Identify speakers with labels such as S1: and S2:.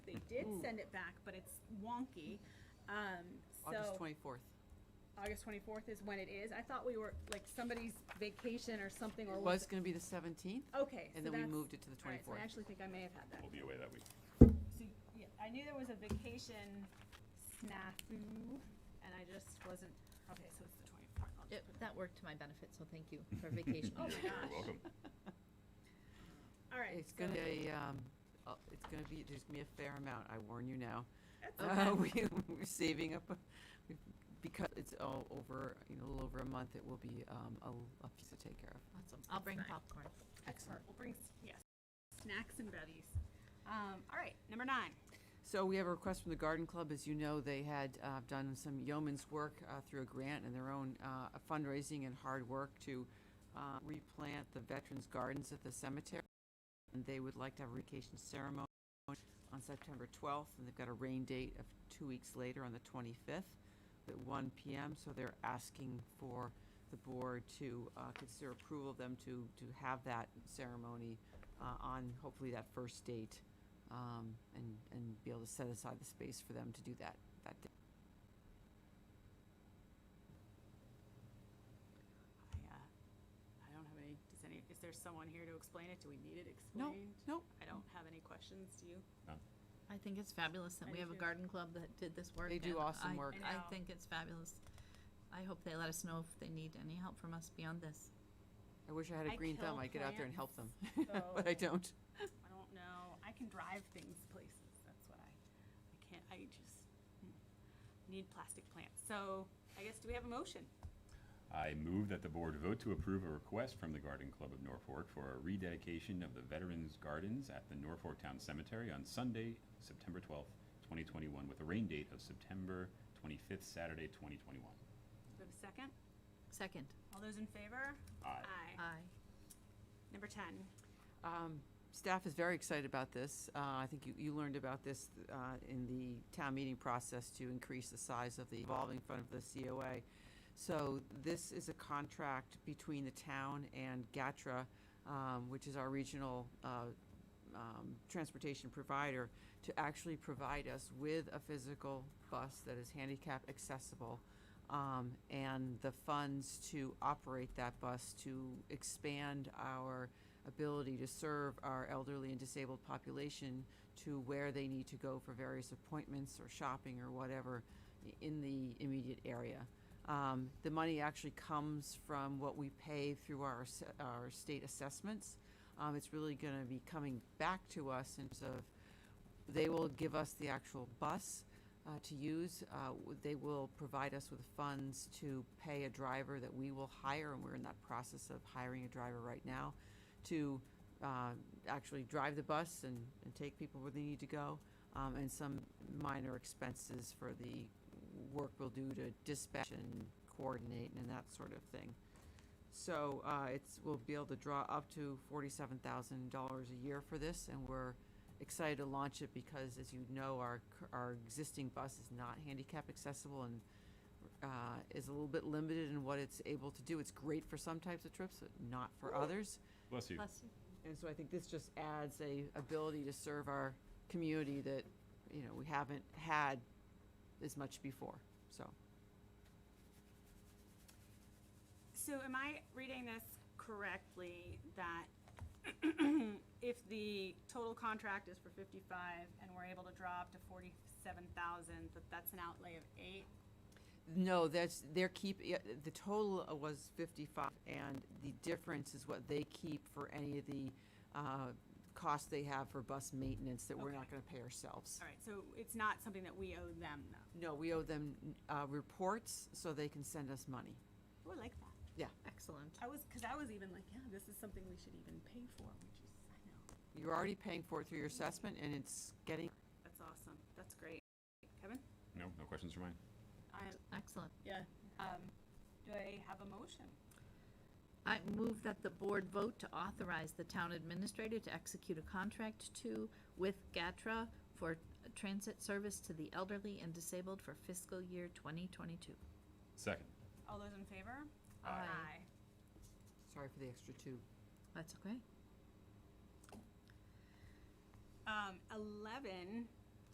S1: did send it back, but it's wonky. Um,
S2: August
S1: so
S2: 24th.
S1: August twenty-fourth is when it is. I thought we were, like, somebody's vacation or something or.
S2: It was going to be the 17th.
S1: Okay. so
S2: And then we
S1: that's-
S2: moved it to the
S1: all right, so
S2: 24th.
S1: I actually think I may have had that.
S3: We'll be away that week.
S1: So, yeah, I knew there was a vacation snafu, and I just wasn't, okay, so it's the twenty-fourth. I'll just
S4: It,
S1: put it-
S4: that worked to my benefit, so thank you for vacation.
S1: Oh my
S3: You're
S1: gosh.
S3: welcome.
S1: All right.
S2: It's going to
S1: so-
S2: be, um, uh, it's going to be, there's going to be a fair amount, I warn you now.
S1: That's
S2: Uh,
S1: okay.
S2: we- We're saving up, uh, we- because it's all over, you know, a little over a month, it will be um, a a piece to take care of.
S4: Awesome. I'll bring
S1: Fine.
S4: popcorn.
S2: uh,
S1: Excellent. We'll bring, s- yes, snacks and buddies. Um, all right, number nine.
S2: So we have a request from the Garden Club. As you know, they had uh, done some yeoman's work uh, through a grant and their own uh, fundraising and hard work to uh, replant the veterans' gardens at the cemetery. And they would like to have a vacation ceremony on September 12th, and they've got a rain date of two weeks later on the 25th at 1 PM. So they're asking for the board to uh, consider approval of them to, to have that ceremony uh, on hopefully that first date um, and, and be able to set aside the space for them to do that, that day.
S1: I, uh, I don't have any, does any, is there someone here to explain it? Do we need it
S2: No,
S1: explained?
S2: no,
S1: I don't have any questions, do you?
S3: No.
S4: I think it's fabulous that
S1: I do
S4: we have a
S1: too.
S4: garden club that did this work.
S2: They do
S4: and
S2: awesome
S4: I-
S2: work.
S1: I
S4: I
S1: know.
S4: think it's fabulous. I hope they let us know if they need any help from us beyond this.
S2: I wish I had
S1: I
S2: a green thumb,
S1: kill
S2: I'd get out there and help them,
S1: plants,
S2: but I
S1: so-
S2: don't.
S1: I don't know. I can drive things places. That's what I, I can't, I just mm, need plastic plants. So I guess, do we have a motion?
S3: I move that the board vote to approve a request from the Garden Club of Norfolk for a rededication of the Veterans Gardens at the Norfolk Town Cemetery on Sunday, September 12th, 2021, with a rain date of September 25th, Saturday, 2021.
S1: Do we have a second?
S4: Second,
S1: All those in favor?
S3: Aye.
S4: aye.
S1: Number ten.
S2: Um, Staff is very excited about this. Uh, I think you, you learned about this uh, in the town meeting process to increase the size of the evolving fund of the COA. So this is a contract between the town and GATRA, um, which is our regional uh, um, transportation provider, to actually provide us with a physical bus that is handicap accessible um, and the funds to operate that bus to expand our ability to serve our elderly and disabled population to where they need to go for various appointments or shopping or whatever i- in the immediate area. Um, the money actually comes from what we pay through our, ass- our state assessments. Um, it's really going to be coming back to us in terms of they will give us the actual bus uh, to use. Uh, w- They will provide us with funds to pay a driver that we will hire, and we're in that process of hiring a driver right now, to uh, actually drive the bus and, and take people where they need to go, um, and some minor expenses for the work we'll do to dispatch and coordinate and that sort of thing. So uh, it's, we'll be able to draw up to forty-seven thousand dollars a year for this, and we're excited to launch it because, as you know, our, cur- our existing bus is not handicap accessible and uh, is a little bit limited in what it's able to do. It's great for some types of trips, but not for others.
S3: Bless you.
S4: Bless you.
S2: And so I think this just adds a ability to serve our community that, you know, we haven't had as much before, so.
S1: So am I reading this correctly, that if the total contract is for fifty-five and we're able to draw up to forty-seven thousand, that that's an outlay of eight?
S2: No, that's, their keep, yeah, the total was 55, and the difference is what they keep for any of the uh, costs they have for bus maintenance that we're not
S1: Okay.
S2: going to pay ourselves.
S1: All right, so it's not something that we owe them, though.
S2: No, we owe them uh, reports so they can send us money.
S1: Oh, I like that.
S2: Yeah,
S4: Excellent.
S1: I was, because I was even like, yeah, this is something we should even pay for, which is, I know,
S2: you're already paying for it through your assessment, and it's getting,
S1: that's awesome. That's great. Kevin?
S3: No, no questions for mine?
S1: I,
S4: Excellent.
S1: yeah. Um, do I have a motion?
S4: I move that the board vote to authorize the town administrator to execute a contract to, with GATRA for transit service to the elderly and disabled for fiscal year 2022.
S3: Second.
S1: All those in favor?
S4: Aye. Aye.
S2: sorry for the extra two.
S4: That's okay?
S1: Um, eleven